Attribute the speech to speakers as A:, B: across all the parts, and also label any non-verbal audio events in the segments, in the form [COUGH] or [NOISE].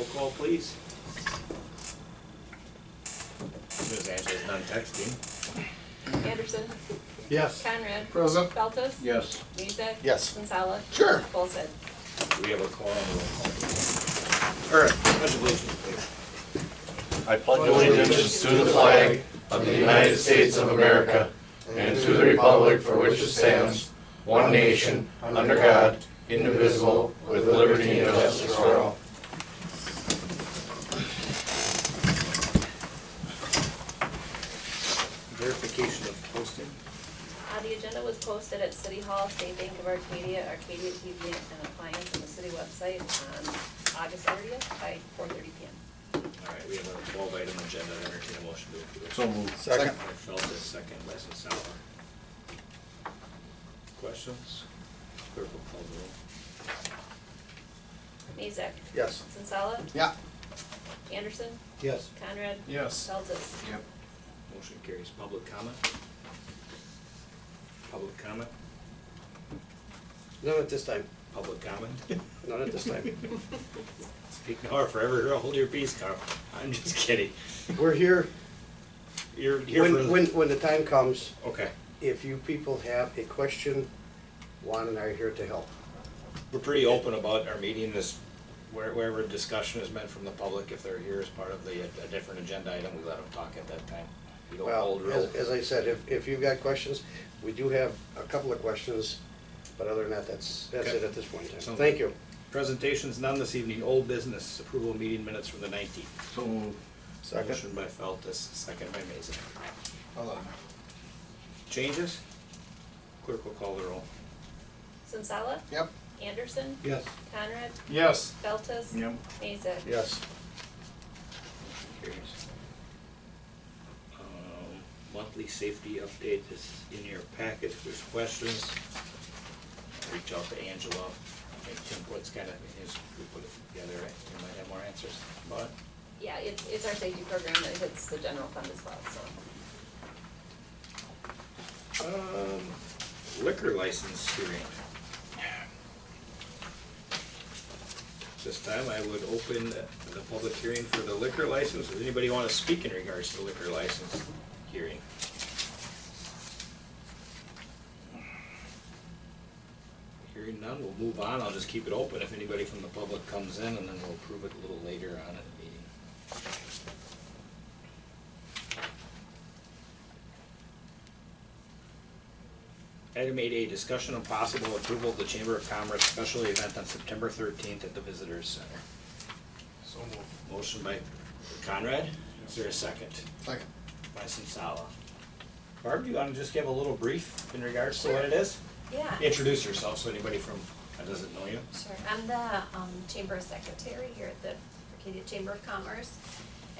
A: please.
B: Ms. Angela's not texting.
C: Anderson.
D: Yes.
C: Conrad.
D: Present.
C: Feltes.
B: Yes.
C: Mezek.
D: Yes.
C: Sensala.
D: Sure.
C: Olson.
B: We have a quorum. All right, much obligation, please.
E: I pledge allegiance to the flag of the United States of America and to the republic for which it stands, one nation, under God, indivisible, with liberty and justice for all.
B: Verification of posting.
C: Uh, the agenda was posted at City Hall, State Bank of Arcadia, Arcadia TV and Appliance on the city website on August thirtieth by four thirty P M.
B: All right, we have a twelve item agenda, entertain a motion to approve.
D: So moved. Second.
B: By Feltes, second by Sensala. Questions? Clerk will call the roll.
C: Mezek.
D: Yes.
C: Sensala.
D: Yeah.
C: Anderson.
D: Yes.
C: Conrad.
D: Yes.
C: Feltes.
D: Yep.
B: Motion carries. Public comment? Public comment?
A: None at this time,
B: Public comment?
A: none at this time.
B: Speak now or forever hold your peace, Carl. [LAUGHS] I'm just kidding.
A: [LAUGHS] We're here,
B: You're here for.
A: when, when, when the time comes,
B: Okay,
A: if you people have a question, Juan and I are here to help.
B: we're pretty open about our meeting this, where- wherever discussion is meant from the public, if they're here as part of the, a different agenda item, we let them talk at that time. We don't
A: Well,
B: hold
A: as,
B: real.
A: as I said, if, if you've got questions, we do have a couple of questions, but other than that, that's, that's
B: Okay.
A: it at this point in time.
B: Sounds
A: Thank
B: good.
A: you.
B: Presentations none this evening, old business, approval of meeting minutes from the nineteenth.
D: So moved.
B: Motion by Feltus, second by Mason.
D: Hold on.
B: Changes? Clerk will call the roll.
C: Sensala.
D: Yep.
C: Anderson.
A: Yes.
C: Conrad.
D: Yes.
C: Feltes.
D: Yep.
C: Mezek.
A: Yes.
B: Carries. Um, Monthly safety update is in your packet, if there's questions, reach out to Angela. I think Tim Woods kind of, his group put it together, right? You might have more answers about it.
C: Yeah, it's, it's our safety program that hits the general fund as well, so.
B: Um, Liquor license hearing. This time I would open the public hearing for the liquor license. Does anybody want to speak in regards to the liquor license hearing? Hearing none, we'll move on. I'll just keep it open if anybody from the public comes in, and then we'll approve it a little later on in the meeting. Item eight A, discussion and possible approval of the Chamber of Commerce special event on September thirteenth at the Visitors Center.
D: So moved.
B: Motion by Conrad, is there a second?
D: Second.
B: By Sensala. Barb, do you wanna just give a little brief in regards to what it is?
C: Yeah.
B: Introduce yourself, so anybody from, that doesn't know you.
F: Sure, I'm the um Chamber Secretary here at the Arcadia Chamber of Commerce.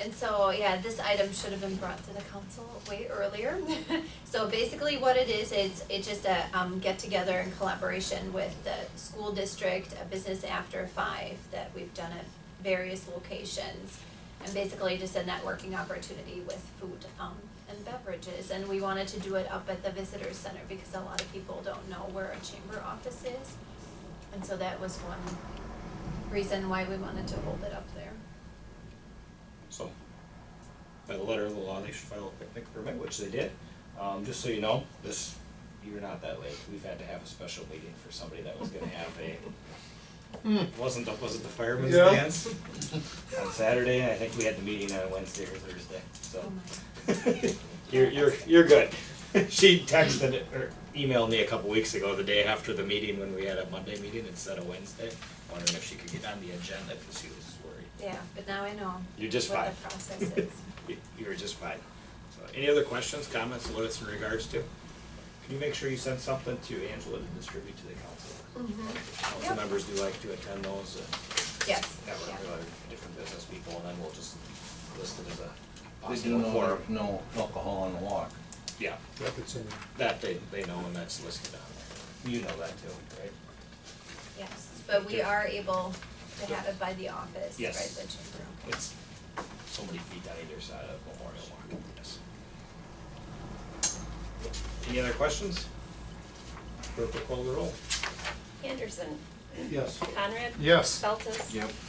F: And so, yeah, this item should have been brought to the council way earlier. [LAUGHS] So basically what it is, it's it's just a um get together in collaboration with the school district, a business after five that we've done at various locations. And basically just a networking opportunity with food um and beverages. And we wanted to do it up at the visitor center because a lot of people don't know where a chamber office is. And so that was one reason why we wanted to hold it up there.
B: So, by the letter of the law, they should file a picnic permit, which they did. Um, just so you know, this, you're not that late. We've had to have a special meeting for somebody that was gonna have a, wasn't, the- was it the fireman's
D: Yeah.
B: dance? On Saturday, and I think we had the meeting on Wednesday or Thursday,
F: Oh
B: so.
F: my.
B: [LAUGHS] You're, you're, you're good. [LAUGHS] She texted or emailed me a couple weeks ago, the day after the meeting, when we had a Monday meeting instead of Wednesday, wondering if she could get on the agenda, cause she was worried.
F: Yeah, but now I know
B: You're just
F: what
B: fine.
F: the process is.
B: [LAUGHS] You- You were just fine. So, any other questions, comments, what it's in regards to? Can you make sure you send something to Angela to distribute to the council? Council
F: Mm-hmm. Yep.
B: members do like to attend those, uh,
F: Yes,
B: network
F: yeah.
B: with other different business people, and then we'll just list it as a
E: They do
B: possible
E: know
B: forum.
E: there's no alcohol on the walk.
B: Yeah, that they, they know, and that's listed on there. You know that too, right?
F: Yes, but we are able to have it by the office, right,
B: Yes.
F: the chamber.
B: It's so many feet on either side of Memorial Walk, yes. Any other questions? Clerk will call the roll.
C: Anderson.
D: Yes.
C: Conrad.
D: Yes.
C: Feltes.
D: Yep.